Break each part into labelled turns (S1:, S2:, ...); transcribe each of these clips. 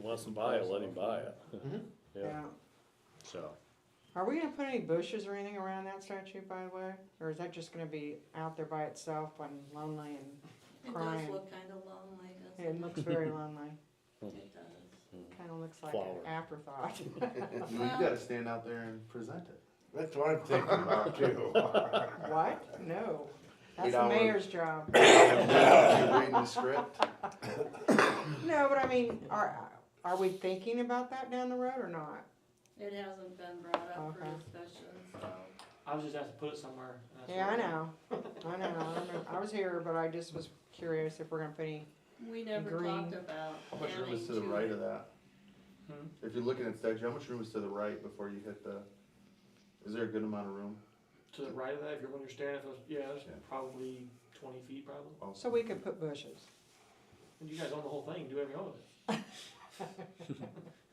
S1: wants to buy it, let him buy it, yeah,
S2: Yeah.
S1: so.
S2: Are we gonna put any bushes or anything around that statue, by the way? Or is that just gonna be out there by itself and lonely
S3: It does
S2: Crying.
S3: look kind of lonely,
S2: and it
S3: doesn't it?
S2: looks very lonely.
S3: It does.
S2: Kinda looks like an
S1: Flower.
S2: afterthought.
S4: Well, you gotta stand out there and present it.
S5: That's what I'm thinking about too.
S2: What?
S5: You
S2: No. That's the
S5: don't want-
S2: mayor's job.
S4: You're reading the script.
S2: No, but I mean, are, are we thinking about that down the road or not?
S3: It hasn't been brought up for
S6: Uh-huh.
S2: Okay.
S3: discussion, so.
S6: I was just asked to put it somewhere. and that's
S2: Yeah,
S6: where-
S2: I know. I know. I remember- I was here, but I just was curious if we're gonna put any,
S3: We never
S2: Green.
S3: talked about
S4: How much room
S3: adding
S4: is to the right of
S3: to it.
S4: that?
S6: Hmm?
S4: If you're looking at statue, how much room is to the right before you hit the, is there a good amount of room?
S6: To the right of that, if you're when you're standing, if it was, yeah, it's
S4: Yeah.
S6: probably twenty feet probably.
S2: so we could put bushes.
S6: And you guys own the whole thing, do whatever you want with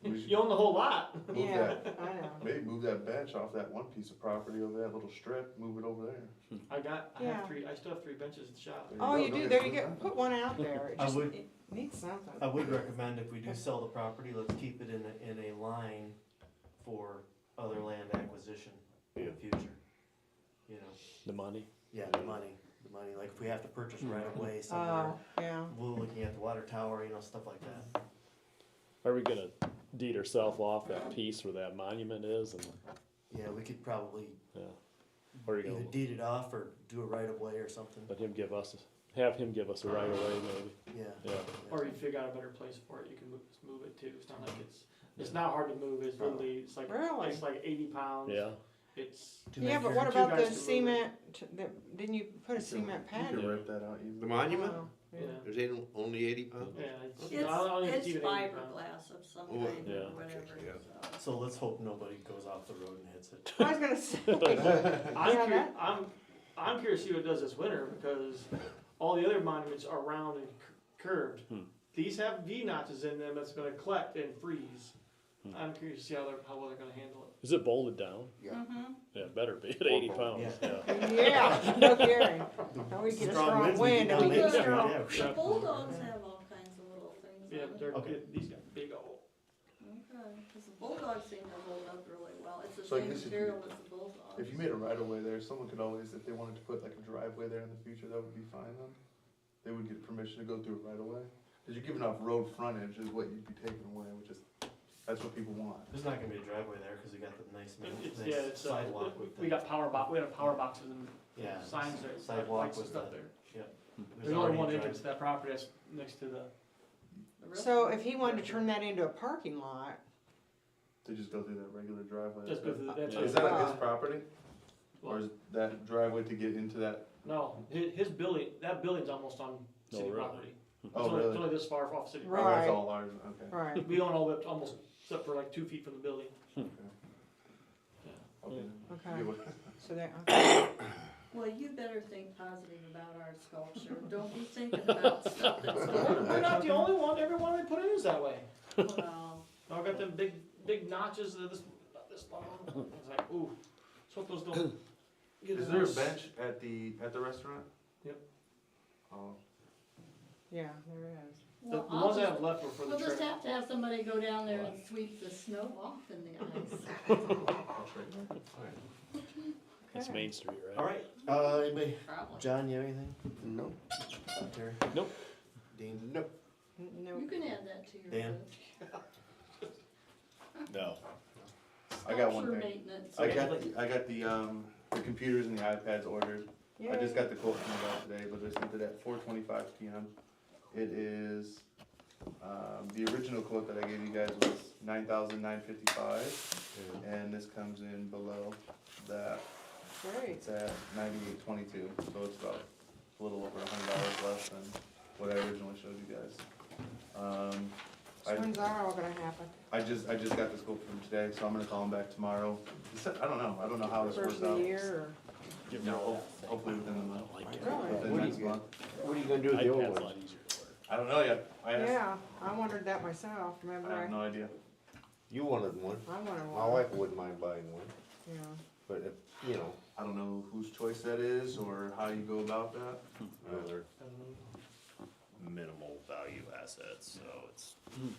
S4: We
S6: it.
S4: should
S6: You own the whole lot.
S4: move
S2: Yeah,
S4: that-
S2: I know.
S4: Maybe move that bench off that one piece of property over that little strip, move it over there.
S6: I got, I
S2: Yeah.
S6: have three, I still have three benches at the shop.
S4: There
S2: Oh,
S4: go.
S2: you
S4: Don't
S2: do,
S4: get
S2: there you
S4: too
S2: go,
S4: bad.
S2: put one out there, it
S7: I
S2: just
S7: would-
S2: it needs something.
S7: I would recommend if we do sell the property, let's keep it in a, in a line for other land acquisition in the future. You know,
S1: The money?
S7: yeah, the money, the money, like if we have to purchase right away somewhere,
S2: Oh, yeah,
S7: we're looking at the water tower, you know, stuff like that.
S1: Are we gonna deed ourselves off that piece where that monument is and,
S7: Yeah, we could probably
S1: or you
S7: either
S1: gonna
S7: deed it off or do a right of way or something,
S1: let him give us, have him give us a right of way maybe,
S7: yeah.
S1: yeah.
S6: Or you figure out a better place for it, you can move, just move it too, it's not like it's, it's not hard to move, it's literally, it's like,
S2: Really?
S6: it's like eighty pounds.
S1: Yeah,
S6: It's,
S7: Two
S2: yeah, but
S7: acres.
S2: what
S6: two
S2: about
S6: guys
S2: the
S6: to move it.
S2: cement, t- the- didn't you put a
S4: You can-
S2: cement pad?
S4: You
S2: in?
S4: can rip that out easily.
S5: The monument?
S2: Oh,
S6: yeah,
S2: yeah.
S5: There's ain't only eighty
S2: Oh.
S5: pounds?
S6: yeah, it's, I don't think
S3: It's, it's
S6: even 80 pounds.
S3: fiberglass of some
S5: Oh,
S3: kind
S1: yeah.
S3: or whatever,
S5: Yeah.
S3: so.
S7: So let's hope nobody goes off the road and hits it.
S2: I was gonna say,
S6: I'm,
S2: Yeah,
S6: curi-
S2: that-
S6: I'm, I'm curious to see what it does this winter because all the other monuments are round and cur- curved.
S1: Hmm.
S6: These have V notches in them that's going to collect and freeze.
S7: Hmm.
S6: I'm curious to see how they're how well they're going to handle it.
S1: is it bolted down?
S3: Mhm.
S1: Yeah, it better be at eighty pounds, yeah.
S2: yeah, no kidding. Now we get
S7: Strong
S2: strong
S7: winds, we
S2: wind
S7: get
S2: and we
S7: down
S2: get
S7: there.
S2: strong.
S7: Yeah,
S3: The
S7: yeah.
S3: bulldogs have all kinds of little things
S6: Yeah,
S3: on them.
S6: they're
S7: Okay.
S6: these got big old.
S3: Okay, because the bulldogs seem to hold up really well. It's the
S4: So I
S3: same
S4: guess if you-
S3: material as the bulldogs.
S4: If you made a right of way there, someone could always, if they wanted to put like a driveway there in the future, that would be fine then. They would get permission to go through it right away. Cause you're giving off road frontage is what you'd be taking away, which is, that's what people want.
S7: There's not gonna be a driveway there, cause we got the nice,
S6: It- It's,
S7: nice
S6: yeah, it's, uh,
S7: sidewalk with the.
S6: we got power box. We had a power boxes and
S7: Yeah.
S6: signs there,
S7: sidewalk
S6: lights and
S7: with
S6: stuff
S7: the-
S6: there.
S7: there's
S6: There's only
S7: already a
S6: one
S7: drive-
S6: entrance to that property that's next to the.
S3: The rest
S2: So
S3: of
S2: if he wanted to
S6: Yeah.
S2: turn that into a parking lot,
S4: They just go through that regular driveway.
S6: Just go through the, that's
S1: Yeah.
S4: Is that on his property? Or
S6: Well,
S4: is that driveway to get into that?
S6: no, his, his building that building's almost on
S1: No,
S6: city
S1: really?
S6: property.
S4: Oh,
S6: it's, only, it's
S4: really?
S6: only this far off city.
S4: Oh,
S2: Right.
S4: that's all ours, okay.
S2: right,
S6: We own all the way up to almost except for like two feet from the building.
S4: Okay.
S2: okay,
S4: Good one.
S2: so that, uh, okay.
S3: the- Well, you better think positive about our sculpture. Don't be thinking about stuff that's going
S6: We're not the only one, every one they put in is that way.
S3: well.
S6: I got them big, big notches that this, about this long, it's like, ooh, that's what those don't. get
S4: Is there a
S6: loose.
S4: bench at the, at the restaurant?
S6: Yep.
S4: Oh,
S2: yeah, there it is.
S6: The, the
S3: Well, I'll
S6: ones I
S3: just,
S6: have left were for the
S3: we'll just
S6: trail.
S3: have to have somebody go down there and sweep the snow off in the ice.
S4: I'll trade that.
S1: That's
S2: Okay.
S1: Main Street, right?
S7: Alright, uh, anybody,
S3: Probably.
S7: John, you have anything?
S5: No,
S7: Terry?
S1: Nope.
S7: Dean?
S5: no.
S2: N-
S3: You
S2: No,
S3: can add that to your
S7: Dan?
S3: list.
S1: No.
S4: I got one
S3: Sculpture
S4: thing.
S3: maintenance.
S4: I got, the- I got the, um, the computers and the iPads ordered. I
S2: yeah,
S4: just got the quote from the guy today, but I sent it at four twenty-five PM. It is, um, the original quote that I gave you guys was nine thousand nine fifty-five, and this comes in below that.
S2: great,
S4: It's at ninety-eight twenty-two, so it's about a little over a hundred dollars less than what I originally showed you guys. Um,
S2: so when's
S4: I,
S2: that all gonna happen?
S4: I just, I just got this quote from today, so I'm gonna call him back tomorrow. He said, I don't know, I don't know how this
S2: First
S4: works
S2: of
S4: out.
S2: the year
S1: Give
S4: No,
S1: me all
S4: ho- hopefully within the month,
S1: that. I
S2: or,
S1: don't
S2: really?
S4: within
S5: What do
S4: next
S5: you-
S4: month.
S5: What are you gonna do with
S1: like
S5: the
S1: it.
S5: old
S1: iPad's a
S5: one?
S1: lot easier to work.
S4: I don't know yet. I asked,
S2: Yeah, I wondered that myself, remember
S4: I have
S2: I,
S4: no idea.
S5: You wanted one.
S2: I wanted
S5: My
S2: one,
S5: wife wouldn't mind buying one,
S2: yeah,
S5: but if, you know,
S4: I don't know whose choice that is or how you go about that.
S5: uh,
S6: Um,
S8: minimal value assets, so it's